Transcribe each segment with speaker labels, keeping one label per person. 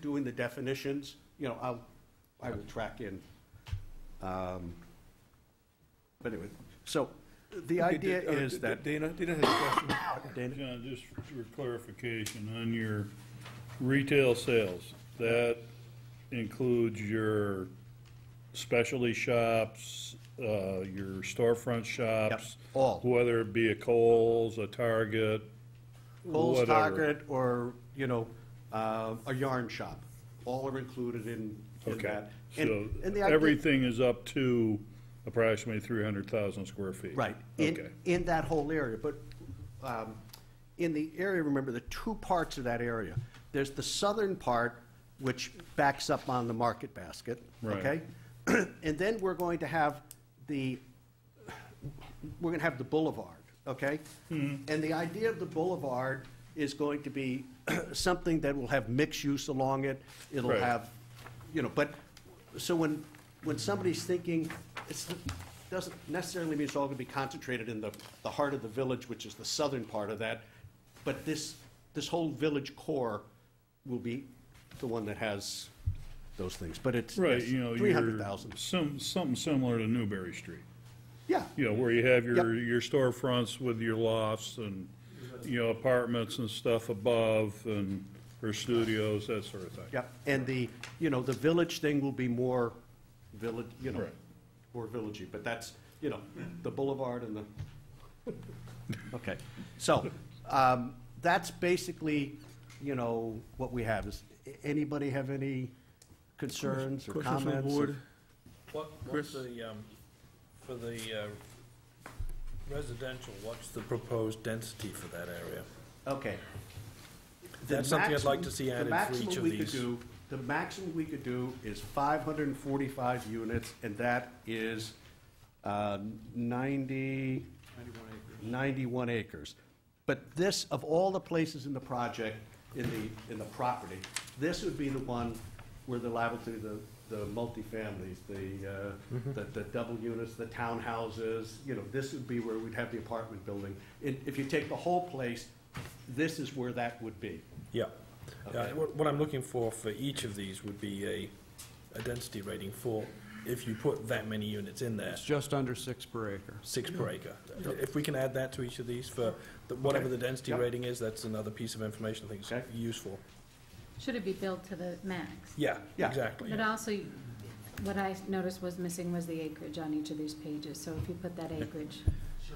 Speaker 1: doing the definitions, you know, I'll, I will track in. Um, But anyway, so the
Speaker 2: Okay,
Speaker 1: idea
Speaker 2: Da- uh,
Speaker 1: is
Speaker 2: Da-
Speaker 1: that,
Speaker 2: Dana, Dana has a question.
Speaker 1: Dana?
Speaker 3: John, just for clarification, on your retail sales, that includes your specialty shops, uh, your storefront shops?
Speaker 1: all.
Speaker 3: Whether it be a Kohl's, a Target,
Speaker 1: Kohl's,
Speaker 3: whatever.
Speaker 1: Target, or, you know, uh, a yarn shop, all are included in in
Speaker 3: Okay,
Speaker 1: that.
Speaker 3: so
Speaker 1: And- and the idea-
Speaker 3: everything is up to approximately three hundred thousand square feet?
Speaker 1: Right,
Speaker 3: Okay,
Speaker 1: in, in that whole area, but um, in the area, remember, the two parts of that area. There's the southern part, which backs up on the Market Basket, okay?
Speaker 3: Right.
Speaker 1: And then we're going to have the, we're gonna have the boulevard, okay?
Speaker 3: Mm-hmm.
Speaker 1: And the idea of the boulevard is going to be something that will have mixed use along it. It'll
Speaker 3: Right.
Speaker 1: have, you know, but, so when, when somebody's thinking, it's, doesn't necessarily mean it's all gonna be concentrated in the, the heart of the village, which is the southern part of that, but this, this whole village core will be the one that has those things, but it's.
Speaker 3: right, you know,
Speaker 1: Three
Speaker 3: you're,
Speaker 1: hundred thousand,
Speaker 3: some, something similar to Newberry Street.
Speaker 1: yeah.
Speaker 3: you know, where you have your, your storefronts with your lofts and, you know, apartments and stuff above and, or studios, that sort of thing.
Speaker 1: Yep, and the, you know, the village thing will be more village, you know,
Speaker 3: Right.
Speaker 1: more villagey, but that's, you know, the boulevard and the, okay. So, um, that's basically, you know, what we have. Is anybody have any concerns or
Speaker 2: Question
Speaker 1: comments?
Speaker 2: from the board?
Speaker 4: What,
Speaker 2: Chris?
Speaker 4: what's the, um, for the uh, residential, what's the proposed density for that area?
Speaker 1: Okay. The
Speaker 4: That's something I'd like
Speaker 1: maximum-
Speaker 4: to see
Speaker 1: the
Speaker 4: added for
Speaker 1: maximum
Speaker 4: each of
Speaker 1: we could
Speaker 4: these.
Speaker 1: do- The maximum we could do is five hundred and forty-five units, and that is uh, ninety. Ninety-one acres. But this, of all the places in the project, in the, in the property, this would be the one where they're liable to the, the multifamilies, the, uh, the, the double units, the townhouses, you know, this would be where we'd have the apartment building. And if you take the whole place, this is where that would be.
Speaker 4: Yeah. Uh,
Speaker 1: Okay.
Speaker 4: What what I'm looking for for each of these would be a, a density rating for, if you put that many units in there,
Speaker 5: It's just under six per acre.
Speaker 4: six per acre. If we can add that to each of these for the- whatever
Speaker 1: Okay.
Speaker 4: the density
Speaker 1: Yep.
Speaker 4: rating is, that's another piece of information I think
Speaker 1: Okay.
Speaker 4: is useful.
Speaker 6: Should it be built to the max?
Speaker 4: Yeah,
Speaker 1: Yeah.
Speaker 4: exactly.
Speaker 6: But uh, also, what I noticed was missing was the acreage on each of these pages, so if you put that acreage,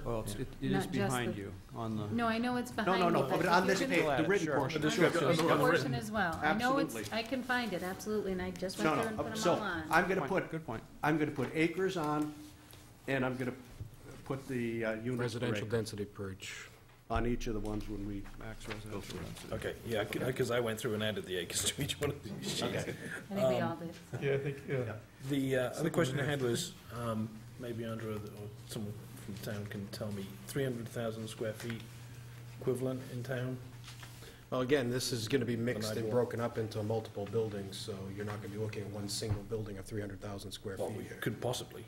Speaker 5: Well, it's- it it
Speaker 6: Not
Speaker 5: is
Speaker 6: just
Speaker 5: behind
Speaker 6: the-
Speaker 5: you on the,
Speaker 6: no, I know it's behind
Speaker 1: No,
Speaker 6: you.
Speaker 1: no, no, but
Speaker 6: if
Speaker 1: on
Speaker 6: you
Speaker 1: this
Speaker 6: can-
Speaker 1: page,
Speaker 5: Add
Speaker 1: the
Speaker 5: it,
Speaker 1: written
Speaker 5: sure.
Speaker 1: portion.
Speaker 4: The description.
Speaker 6: Written
Speaker 4: On the
Speaker 6: portion
Speaker 4: written.
Speaker 6: as well. I know it's,
Speaker 1: Absolutely.
Speaker 6: I can find it, absolutely, and I just
Speaker 1: No,
Speaker 6: went there and
Speaker 1: no,
Speaker 6: put
Speaker 1: uh,
Speaker 6: them
Speaker 1: so
Speaker 6: all on.
Speaker 1: I'm gonna
Speaker 5: Point,
Speaker 1: put,
Speaker 5: good point.
Speaker 1: I'm gonna put acres on, and I'm gonna put the uh, units per
Speaker 5: residential
Speaker 1: acre
Speaker 5: density per each,
Speaker 1: on each of the ones when we,
Speaker 5: max residential density.
Speaker 4: Okay, yeah, because I went through and added the acres to each one of these sheets.
Speaker 6: I think we
Speaker 1: um,
Speaker 6: all did.
Speaker 2: Yeah, I think, yeah.
Speaker 4: The uh, other question I had was, um, maybe Andrea or someone from town can tell me, 300,000 square feet equivalent in town?
Speaker 7: Well, again, this is going to be mixed and
Speaker 4: ideal.
Speaker 7: broken up into multiple buildings, so you're not going to be looking at one single building of 300,000 square
Speaker 4: Well,
Speaker 7: feet
Speaker 4: we
Speaker 7: here.
Speaker 4: could possibly.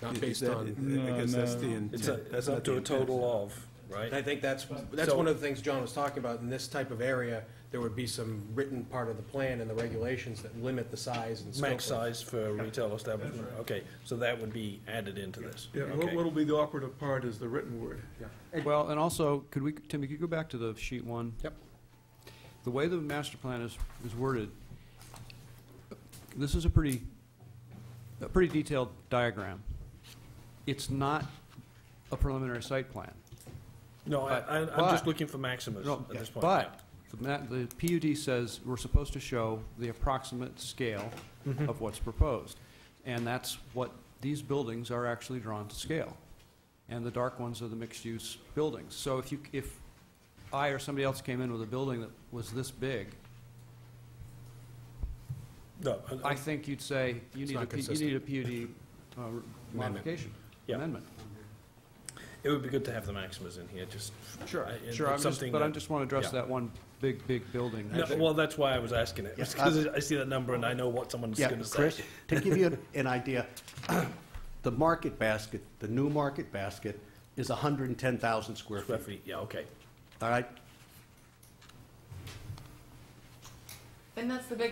Speaker 7: Not
Speaker 2: Is
Speaker 7: based
Speaker 2: that-
Speaker 7: on,
Speaker 2: I guess that's the
Speaker 4: It's a-
Speaker 2: intent.
Speaker 4: It's up to a total of,
Speaker 7: and I
Speaker 4: right?
Speaker 7: think that's, that's
Speaker 4: So-
Speaker 7: one of the things John was talking about. In this type of area, there would be some written part of the plan and the regulations that limit the size and scope.
Speaker 4: Max
Speaker 7: of-
Speaker 4: size for a retail establishment? Okay, so that would be added into this?
Speaker 2: Yeah, what-
Speaker 4: Okay.
Speaker 2: what'll be the operative part is the written word. Yeah.
Speaker 5: Well, and also, could we, Tim, could you go back to the sheet one?
Speaker 7: Yep.
Speaker 5: The way the master plan is, is worded, this is a pretty, a pretty detailed diagram. It's not a preliminary site plan.
Speaker 4: No, I,
Speaker 5: But-
Speaker 4: I- I'm just
Speaker 5: but-
Speaker 4: looking for maximus
Speaker 5: No,
Speaker 4: at this point.
Speaker 5: But, the ma- the PUD says we're supposed to show the approximate scale
Speaker 4: Mm-hmm.
Speaker 5: of what's proposed. And that's what, these buildings are actually drawn to scale. And the dark ones are the mixed-use buildings. So if you, if I or somebody else came in with a building that was this big,
Speaker 4: No, I-
Speaker 5: I think you'd say, you
Speaker 7: It's
Speaker 5: need
Speaker 7: not
Speaker 5: a, P- you
Speaker 7: consistent.
Speaker 5: need a PUD uh, modification,
Speaker 4: Yeah.
Speaker 5: amendment.
Speaker 4: It would be good to have the maximas in here, just.
Speaker 5: Sure,
Speaker 4: I- it's
Speaker 5: Uh, sure, I'm just,
Speaker 4: something
Speaker 5: but I
Speaker 4: that-
Speaker 5: just want to address
Speaker 4: yeah.
Speaker 5: that one big, big building.
Speaker 4: No, Well, that's why I was asking it,
Speaker 1: Yeah,
Speaker 4: because I see that number and I know what someone's
Speaker 1: yeah,
Speaker 4: going to say.
Speaker 1: Chris, to give you an- an idea, the Market Basket, the new Market Basket is hundred and ten thousand square
Speaker 4: Square
Speaker 1: feet,
Speaker 4: feet, yeah, okay.
Speaker 1: all right?
Speaker 8: And that's the big